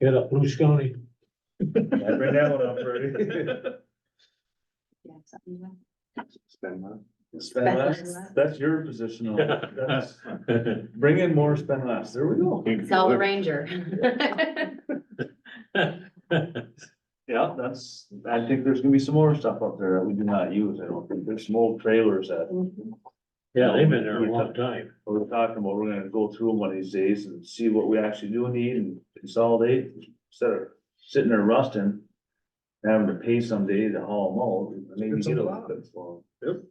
Get up, Blue Scotty. Bring that one up, Freddie. Yeah, something like Spend money. Spend Spend less, less. that's your position on it. That's- Bring in more, spend less. There we go. that. Sell the ranger. Mm-hmm. Yeah, that's, I think there's gonna be some more stuff up there that we do not use. I don't think there's some old trailers that Yeah, they've been there a long time. we're talking about. We're gonna go through them one of these days and see what we actually do need and consolidate instead of sitting there rusting. Having to pay someday to haul them out, maybe It's a get a lot. lot of them.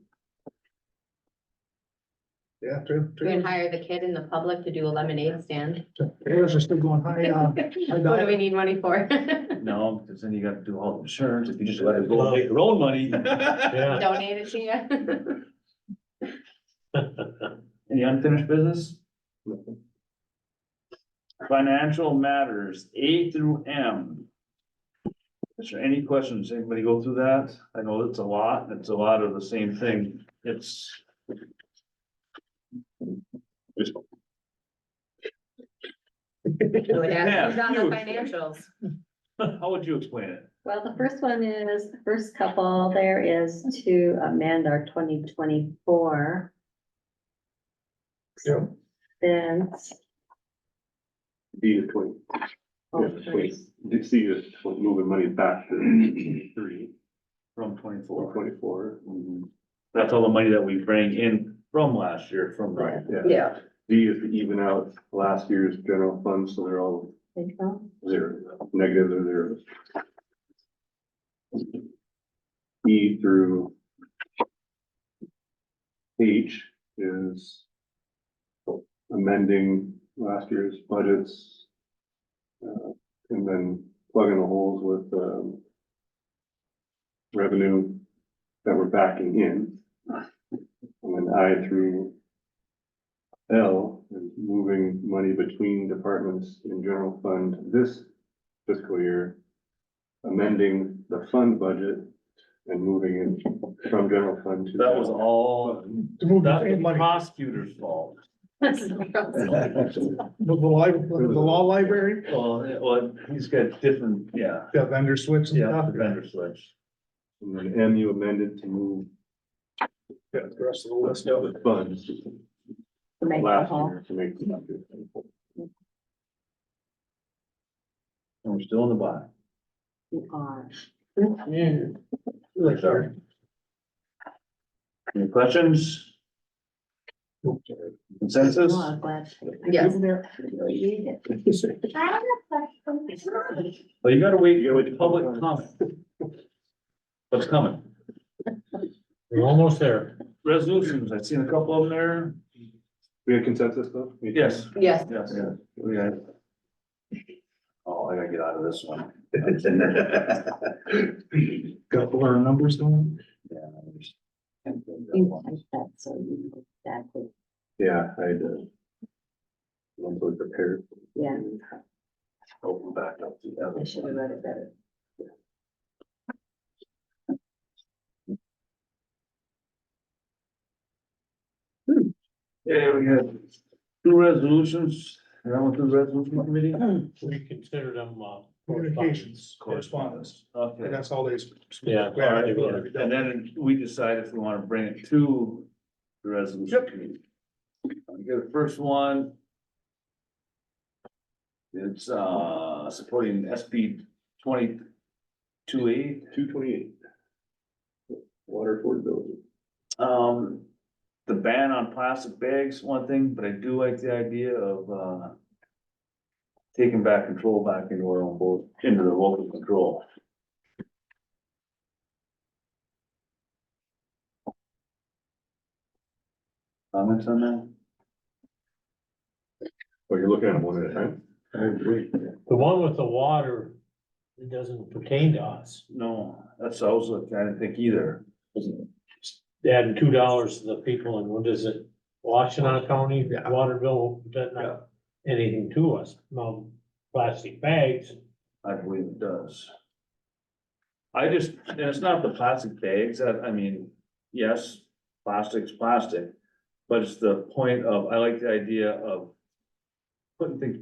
Yeah, true, We can true. hire the kid in the public to do a lemonade stand. Trailers are still going high, uh, What do we need money for? No, because then you gotta do all the insurance. If you just let it go, and make your own money. Yeah, Donate it to you? Any unfinished business? Financial matters, A through M. Is there any questions? Anybody go through that? I know it's a lot, and it's a lot of the same thing. It's. Really Yeah, ask Who's on the huge. financials? How would you explain it? Well, the first one is, the first couple there is to amend our twenty twenty-four Yeah. bids. D to twenty, Oh, Yeah, please. C is moving money back to three, From or twenty-four, twenty-four. that's all the money that we bring in from last year, from. Right, yeah. Yeah. D is to even out last year's general fund, so they're all there you go. zero, negative or zeros. E through H is amending last year's budgets. uh, And then plugging the holes with, um, revenue that we're backing in. And then I through L is moving money between departments in general fund this fiscal year. Amending the fund budget and moving it from general fund to. That was all, To move that the was money, prosecutor's fault. the the li- the law library, Well, it- well, he's got different, yeah. the vendor switch and Yeah, stuff. the vendor switch. And then M you amended to move Yeah, the rest of the list. the funds To make the last whole. year to make. And we're still in the bottom. you are. Like, sorry. Any questions? Consensus? You are glad. Yes. I really need it. Well, you gotta wait, you gotta wait for public comment. What's coming? we're almost there. Resolutions, I've seen a couple of them there. We had consensus though? Yes, Yes, yes, yeah. we got it. Oh, I gotta get out of this one. Got all our numbers going. You typed that, so you know exactly, Yeah, I did. I'm so prepared. yeah, Open back up to the other. I should have read it better. Yeah, we got two resolutions, and I went through the resolution committee. We consider them, uh. Communications, correspondence, Okay. and that's all they. Yeah. We have to do it. And then we decide if we wanna bring it to the resolution committee. We got the first one. It's, uh, supporting SB twenty-two eight, Two twenty-eight. Water affordability. um, the ban on plastic bags, one thing, but I do like the idea of, uh, taking back control back into our own boat, into the local control. Comments on that? Well, Oh, you're looking at them one at a time. I agree. The one with the water, it doesn't pertain to us. No, that's also, I didn't think either. Adding two dollars to the people and what is it? Washington County Yeah. water bill, does not anything to us. No plastic bags. I believe it does. I just, and it's not the plastic bags, I, I mean, yes, plastic's plastic, but it's the point of, I like the idea of putting things